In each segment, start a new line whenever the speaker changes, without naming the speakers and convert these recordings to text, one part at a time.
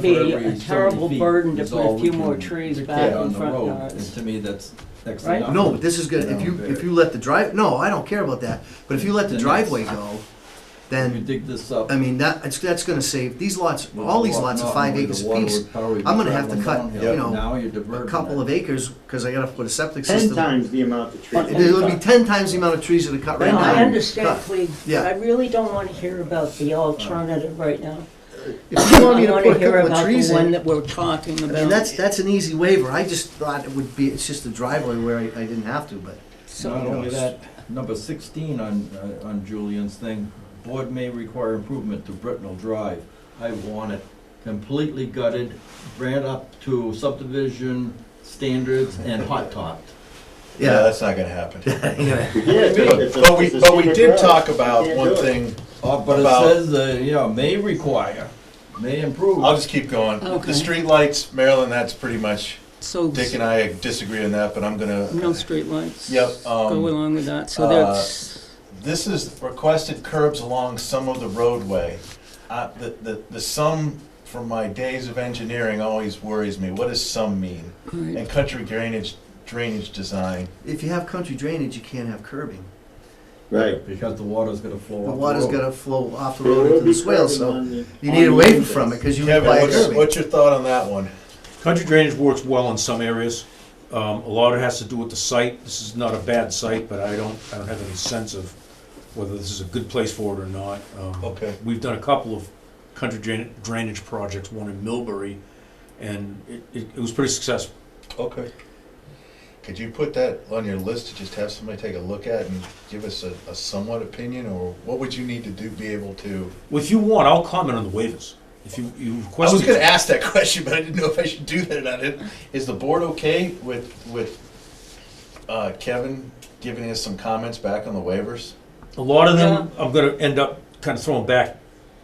be
For every
a
so
terrible
many feet
burden to
is
put
all
a
we
few
can
more trees
dictate
back
on
in
the
front
road.
yards.
And to me, that's next
Right?
to nothing.
No, but this is good. If you, if you let the drive, no, I don't care about that. But if you let the
Then
driveway
it's-
go,
If you
then,
dig this up.
I mean, that, it's, that's gonna save, these lots, all these lots are five acres apiece. I'm gonna have to cut, you know, A couple of acres, cause I gotta put a septic
Ten
system.
times the amount of
It-
trees.
It'll be ten times the amount of trees that are cut right
No,
now.
I understand,
Cut.
Cleve, but
Yeah.
I really don't want to hear about the alternative right now.
If
I
you want me to
want to
put a
hear
couple
about
of trees
the one
in,
that we're talking
I
about.
mean, that's, that's an easy waiver. I just thought it would be, it's just a driveway where I, I didn't have to, but.
So-
Not only that, number sixteen on, uh, on Julian's thing, board may require improvement to Britnell Drive. I want it completely gutted, ran up to subdivision standards and hot topped.
Yeah,
Yeah,
that's not gonna happen.
But
But we, but we did talk about one thing,
Uh, but it
About-
says, uh, you know, may require, may improve.
I'll just keep going.
Okay.
The streetlights, Maryland, that's pretty much,
So,
Dick and I disagree on that, but I'm
no
gonna,
streetlights.
Yep, um,
Go along with that, so
uh,
that's,
this is requested curbs along some of the roadway. Uh, the, the, the sum from my days of engineering always worries me. What does sum mean?
all right.
And country drainage, drainage design,
if you have country drainage, you can't have curbing.
Right.
Because the water's gonna flow
The
up
water's
road.
gonna flow off the
There
road
will
into
be
the swale,
curbing
so
on the-
you
on
need
the
away
entrance.
from it, cause you
Kevin,
require
what's,
curbing.
what's your thought on that one?
Country drainage works well in some areas. Um, a lot of it has to do with the site. This is not a bad site, but I don't, I don't have any sense of whether this is a good place for it or not. Um,
Okay.
We've done a couple of country drain- drainage projects, one in Millbury, and it, it, it was pretty successful.
Okay. Could you put that on your list to just have somebody take a look at and give us a, a somewhat opinion, or what would you need to do, be able to?
Well, if you want, I'll comment on the waivers. If you, you
I
request.
was
it-
gonna ask that question, but I didn't know if I should do that or not. Is- Is the board okay with, with, uh, Kevin giving us some comments back on the waivers?
A lot of them, I'm gonna end up kind of throwing back,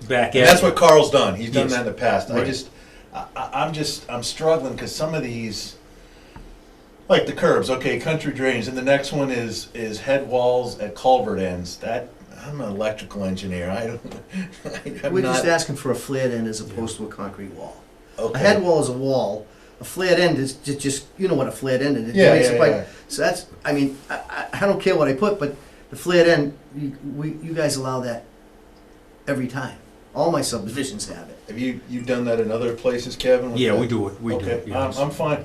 back at
And that's
you.
what Carl's done, he's done
Yes.
that in the past, I
Right.
just, I, I, I'm just, I'm struggling, cause some of these, like the curbs, okay, country drains, and the next one is, is head walls at culvert ends, that, I'm an electrical engineer, I don't, I'm
We're just
not.
asking for a flared end as opposed to a concrete wall. A
okay.
head wall is a wall, a flared end is ju- just, you know what a flared end is. It
Yeah,
makes a
yeah,
pipe.
yeah.
So that's, I mean, I, I, I don't care what I put, but the flared end, you, we, you guys allow that every time. All my subdivisions have it.
Have you, you done that in other places, Kevin? with
Yeah,
that?
we do it, we do
Okay,
it. yeah.
I'm, I'm fine.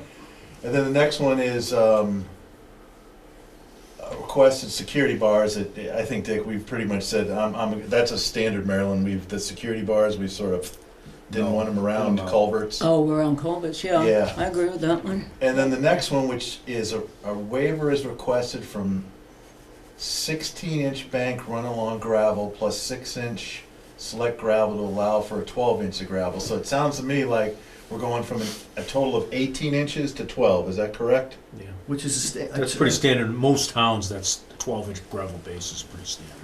And then the next one is, um, uh, requested security bars, that, I think, Dick, we've pretty much said, I'm, I'm, that's a standard Maryland, we've, the security bars, we sort of didn't
No,
want them
them
around
out.
culverts.
Oh, we're on Colbit's, yeah,
Yeah.
I agree with that one.
And then the next one, which is a, a waiver is requested from sixteen inch bank run along gravel plus six inch select gravel to allow for a twelve inch of gravel. So it sounds to me like we're going from a, a total of eighteen inches to twelve, is that correct?
Yeah.
Which is a sta-
That's pretty standard. Most towns, that's twelve inch gravel base is pretty standard.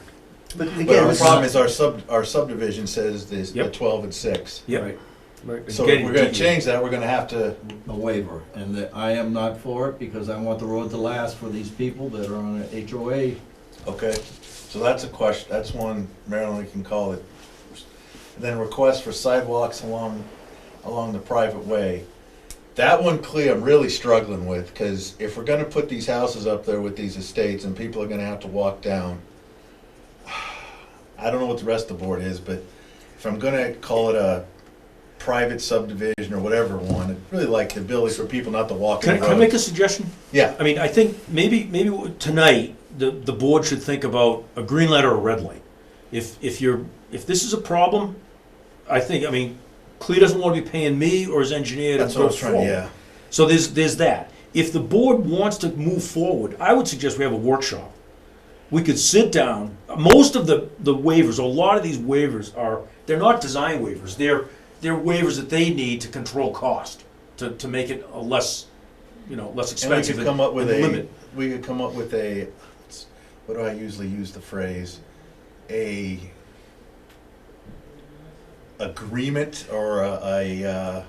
But again,
But our
this is-
problem is our sub, our subdivision says this, the
Yep.
twelve and six.
Yep.
Right.
Right.
So
Again,
if we're gonna
DDA.
change that, we're gonna have to,
a waiver, and that I am not for it, because I want the road to last for these people that are on a HOA.
okay, so that's a question, that's one Maryland we can call it. And Then request for sidewalks along, along the private way. That one, Clea, I'm really struggling with, cause if we're gonna put these houses up there with these estates and people are gonna have to walk down. I don't know what the rest of the board is, but if I'm gonna call it a private subdivision or whatever one, I'd really like the ability for people not to walk in
Can I,
the
can I
road.
make a suggestion?
Yeah.
I mean, I think maybe, maybe tonight, the, the board should think about a green light or a red light. If, if you're, if this is a problem, I think, I mean, Clea doesn't want to be paying me or his engineer to
That's what I
go
was trying,
forward.
yeah.
So there's, there's that. If the board wants to move forward, I would suggest we have a workshop. We could sit down, most of the, the waivers, a lot of these waivers are, they're not design waivers, they're, they're waivers that they need to control cost, to, to make it a less, you know, less
And we
expensive
could
and
come up with
and
a,
limit.
we could come up with a, what do I usually use the phrase? A agreement or a, a, uh,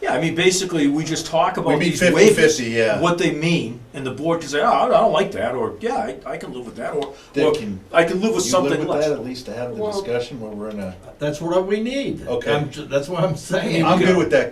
Yeah, I mean, basically, we just talk
We
about
meet
these waivers,
50-50, yeah.
what they mean, and the board can say, oh, I don't- I don't like that, or, yeah, I, I can live with that, or,
They
or
can-
I can live with
You live
something
with that
less.
at least to have the
Well-
discussion where we're in a.
That's what we need.
Okay.
I'm ju- That's what I'm saying.
I'm good with that